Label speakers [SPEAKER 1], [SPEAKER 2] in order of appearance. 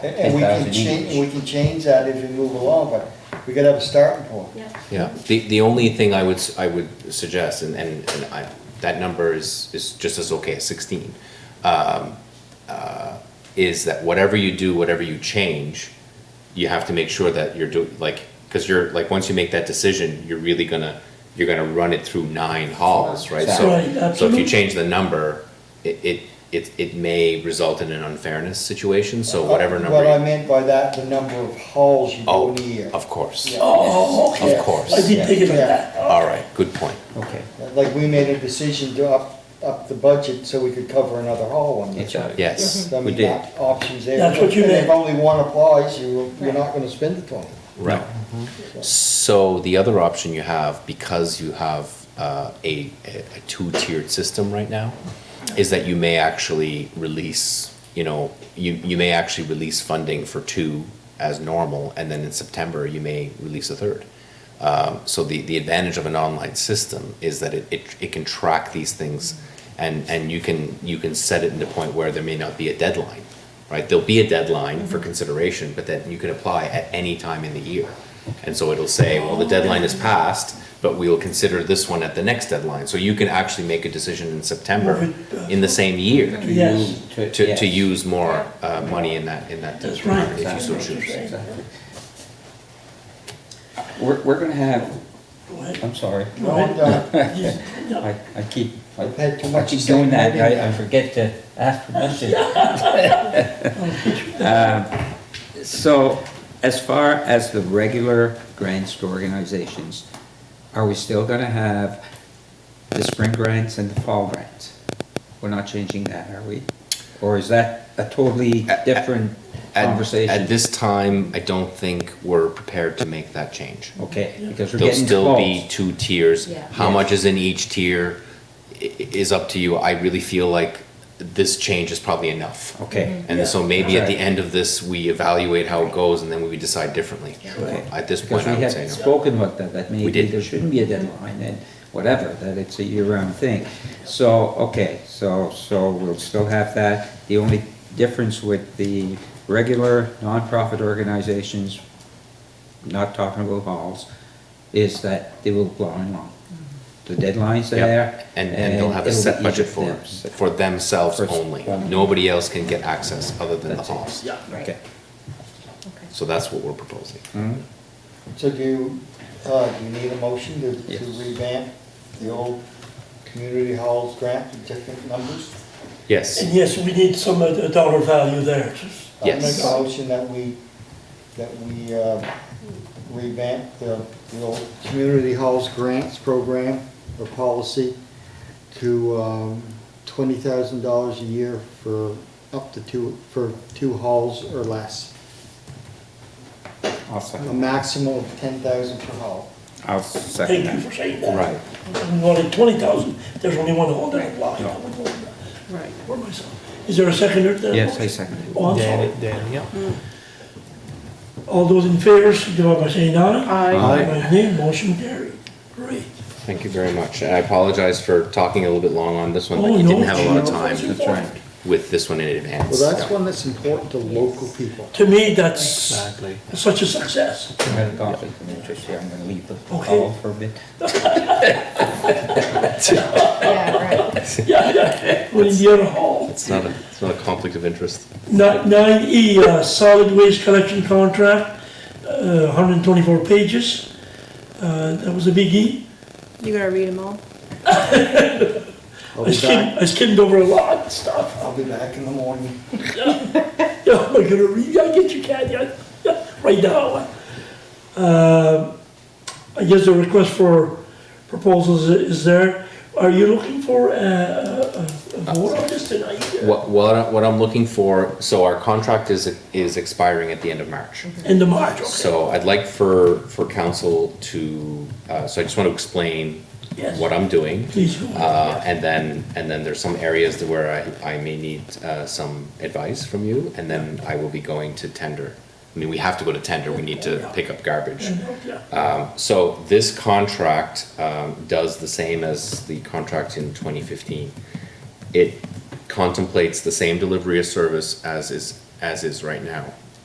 [SPEAKER 1] And and we can
[SPEAKER 2] 10,000
[SPEAKER 1] change,
[SPEAKER 2] each.
[SPEAKER 1] we can change that if we move along, but we gotta have a starting point.
[SPEAKER 3] Yeah.
[SPEAKER 2] Yeah, the, the only thing I would, s- I would suggest, and, and, and I, that number is, is just as okay as sixteen, um, uh, is that whatever you do, whatever you change, you have to make sure that you're doing, like, cause you're, like, once you make that decision, you're really gonna, you're gonna run it through nine halls, right? So-
[SPEAKER 4] Right,
[SPEAKER 2] So if you
[SPEAKER 4] absolutely.
[SPEAKER 2] change the number, it, it, it, it may result in an unfairness situation, so whatever number.
[SPEAKER 1] What I
[SPEAKER 2] you-
[SPEAKER 1] meant by that, the number of halls you do
[SPEAKER 2] Oh,
[SPEAKER 1] in a year.
[SPEAKER 2] of course,
[SPEAKER 1] Yeah.
[SPEAKER 4] Oh, okay.
[SPEAKER 1] Of
[SPEAKER 2] course.
[SPEAKER 4] I didn't think about
[SPEAKER 1] Yeah.
[SPEAKER 4] that.
[SPEAKER 2] all right, good point.
[SPEAKER 5] Okay.
[SPEAKER 1] Like, we made a decision to up, up the budget so we could cover another hall one year.
[SPEAKER 5] That's right.
[SPEAKER 2] Yes,
[SPEAKER 1] So I
[SPEAKER 5] we
[SPEAKER 1] mean,
[SPEAKER 5] did.
[SPEAKER 1] that options there.
[SPEAKER 4] That's what you
[SPEAKER 1] And
[SPEAKER 4] meant.
[SPEAKER 1] If only one applies, you, you're
[SPEAKER 3] Right.
[SPEAKER 1] not gonna spend the twenty.
[SPEAKER 2] right. Mm-hmm. So the other option you have, because you have uh, a, a a two-tiered system right now, is that you may actually release, you know, you, you may actually release funding for two as normal, and then in September, you may release a third. Um, So the, the advantage of an online system is that it, it, it can track these things, and, and you can, you can set it in the point where there may not be a deadline, right? There'll be a deadline
[SPEAKER 4] Mm-hmm.
[SPEAKER 2] for consideration, but then you can apply at any time in the year. And so it'll say, well, the deadline is passed, but we'll consider this one at the next deadline. So you can actually make a decision in September,
[SPEAKER 4] Move it back.
[SPEAKER 2] in the same year,
[SPEAKER 5] To
[SPEAKER 4] Yes.
[SPEAKER 5] use-
[SPEAKER 2] to, to
[SPEAKER 5] yes.
[SPEAKER 2] use more uh, money in that, in that
[SPEAKER 4] That's
[SPEAKER 2] regard,
[SPEAKER 4] right.
[SPEAKER 2] if you so choose.
[SPEAKER 5] Exactly. We're, we're gonna have,
[SPEAKER 4] Go ahead.
[SPEAKER 5] I'm sorry,
[SPEAKER 4] Go ahead.
[SPEAKER 1] No, I'm
[SPEAKER 4] Yes, yeah.
[SPEAKER 5] I, I keep, I
[SPEAKER 1] I've had too
[SPEAKER 5] I
[SPEAKER 1] much
[SPEAKER 5] keep
[SPEAKER 1] to
[SPEAKER 5] doing
[SPEAKER 1] say.
[SPEAKER 5] that, I, I forget to ask permission. Um, So, as far as the regular grants to organizations, are we still gonna have the spring grants and the fall grants? We're not changing that, are we? Or is that a totally different
[SPEAKER 2] At-
[SPEAKER 5] conversation?
[SPEAKER 2] At this time, I don't think we're prepared to make that change.
[SPEAKER 5] Okay, because we're
[SPEAKER 2] There'll
[SPEAKER 5] getting
[SPEAKER 2] still be
[SPEAKER 5] close.
[SPEAKER 2] two tiers.
[SPEAKER 3] Yeah.
[SPEAKER 2] How
[SPEAKER 5] Yes.
[SPEAKER 2] much is in each tier i- i- is up to you. I really feel like this change is probably enough.
[SPEAKER 5] Okay,
[SPEAKER 2] And so maybe at the
[SPEAKER 5] Right.
[SPEAKER 2] end of this, we evaluate how it goes and then we decide differently.
[SPEAKER 5] okay.
[SPEAKER 2] At this
[SPEAKER 5] Because
[SPEAKER 2] point, I
[SPEAKER 5] we
[SPEAKER 2] would
[SPEAKER 5] had
[SPEAKER 2] say no.
[SPEAKER 5] spoken about that, that maybe
[SPEAKER 2] did.
[SPEAKER 5] there shouldn't be a deadline and whatever, that it's a year-round thing. So, okay, so, so we'll still have that. The only difference with the regular nonprofit organizations, not talking about halls, is that they will blow along. The deadline's
[SPEAKER 2] Yep.
[SPEAKER 5] there.
[SPEAKER 2] And, and they'll have a
[SPEAKER 5] it'll be
[SPEAKER 2] set
[SPEAKER 5] easy
[SPEAKER 2] budget
[SPEAKER 5] for
[SPEAKER 2] for,
[SPEAKER 5] them.
[SPEAKER 2] for themselves
[SPEAKER 5] For s-
[SPEAKER 2] only.
[SPEAKER 5] only.
[SPEAKER 2] Nobody else can get access other than the
[SPEAKER 5] That's it.
[SPEAKER 2] halls.
[SPEAKER 4] Yeah.
[SPEAKER 5] Okay.
[SPEAKER 3] Okay.
[SPEAKER 2] So that's what we're proposing.
[SPEAKER 5] Hmm?
[SPEAKER 1] So do you, uh, do you need a motion to, to
[SPEAKER 5] Yes.
[SPEAKER 1] revamp the old community halls grant to different numbers?
[SPEAKER 2] Yes.
[SPEAKER 4] And yes, we need some uh, dollar value there.
[SPEAKER 2] Yes.
[SPEAKER 1] I'll make a motion that we, that we, uh, revamp the, the old community halls grants program or policy to, um, twenty thousand dollars a year for up to two, for two halls or less.
[SPEAKER 5] I'll
[SPEAKER 1] A
[SPEAKER 5] second,
[SPEAKER 1] maximum of ten thousand per hall.
[SPEAKER 5] I'll second
[SPEAKER 4] Thank you
[SPEAKER 5] that.
[SPEAKER 4] for saying that.
[SPEAKER 5] Right.
[SPEAKER 4] We wanted twenty thousand, there's only one on that line.
[SPEAKER 5] No.
[SPEAKER 3] Right.
[SPEAKER 4] Where am I saying? Is there a second or? third?
[SPEAKER 5] Yes, I second it.
[SPEAKER 4] Oh, I'm sorry.
[SPEAKER 6] Dan, Dan, yeah.
[SPEAKER 4] All those in favor, signify by saying aye.
[SPEAKER 3] I
[SPEAKER 4] By name, motion carried. Great.
[SPEAKER 2] Thank you very much. And I apologize for talking a little bit long on this one,
[SPEAKER 4] Oh,
[SPEAKER 2] but you
[SPEAKER 4] no,
[SPEAKER 2] didn't have a lot of
[SPEAKER 4] no,
[SPEAKER 2] time
[SPEAKER 4] that's
[SPEAKER 5] That's right.
[SPEAKER 2] with this one in advance.
[SPEAKER 1] Well, that's one that's important to local people.
[SPEAKER 4] To me, that's
[SPEAKER 6] Exactly.
[SPEAKER 4] such a success.
[SPEAKER 5] I had a coffee from Tricia, I'm gonna leave the
[SPEAKER 4] Okay.
[SPEAKER 5] hall for a bit.
[SPEAKER 3] Yeah, right.
[SPEAKER 4] Yeah, yeah. Well, in the other hall.
[SPEAKER 2] It's not a, it's not a conflict of interest.
[SPEAKER 4] Nine E, solid waste collection contract, uh, 124 pages. Uh, That was a biggie.
[SPEAKER 7] You gotta read them all.
[SPEAKER 1] I'll be
[SPEAKER 4] I
[SPEAKER 1] back,
[SPEAKER 4] skimmed, I skimmed over a lot of stuff.
[SPEAKER 1] I'll be back in the morning.
[SPEAKER 4] Yeah, I'm not gonna read, I get you, Kathy, I- yeah, right now. Um, I guess the request for proposals i- is there. Are you looking for uh, a a vote on this tonight?
[SPEAKER 2] What, what, I- what I'm looking for, so our contract is, is expiring at the end of March.
[SPEAKER 4] End of March, okay.
[SPEAKER 2] So I'd like for, for council to, uh, so I just want to explain
[SPEAKER 4] Yes.
[SPEAKER 2] what I'm doing.
[SPEAKER 4] Please do.
[SPEAKER 2] Uh, and then, and then there's some areas that where I, I may need, uh, some advice from you, and then I will be going to tender. I mean, we have to go to tender, we need to pick up garbage.
[SPEAKER 4] Yeah.
[SPEAKER 2] Um, so this contract, um, does the same as the contract in twenty fifteen. It contemplates the same delivery of service as is, as is right now.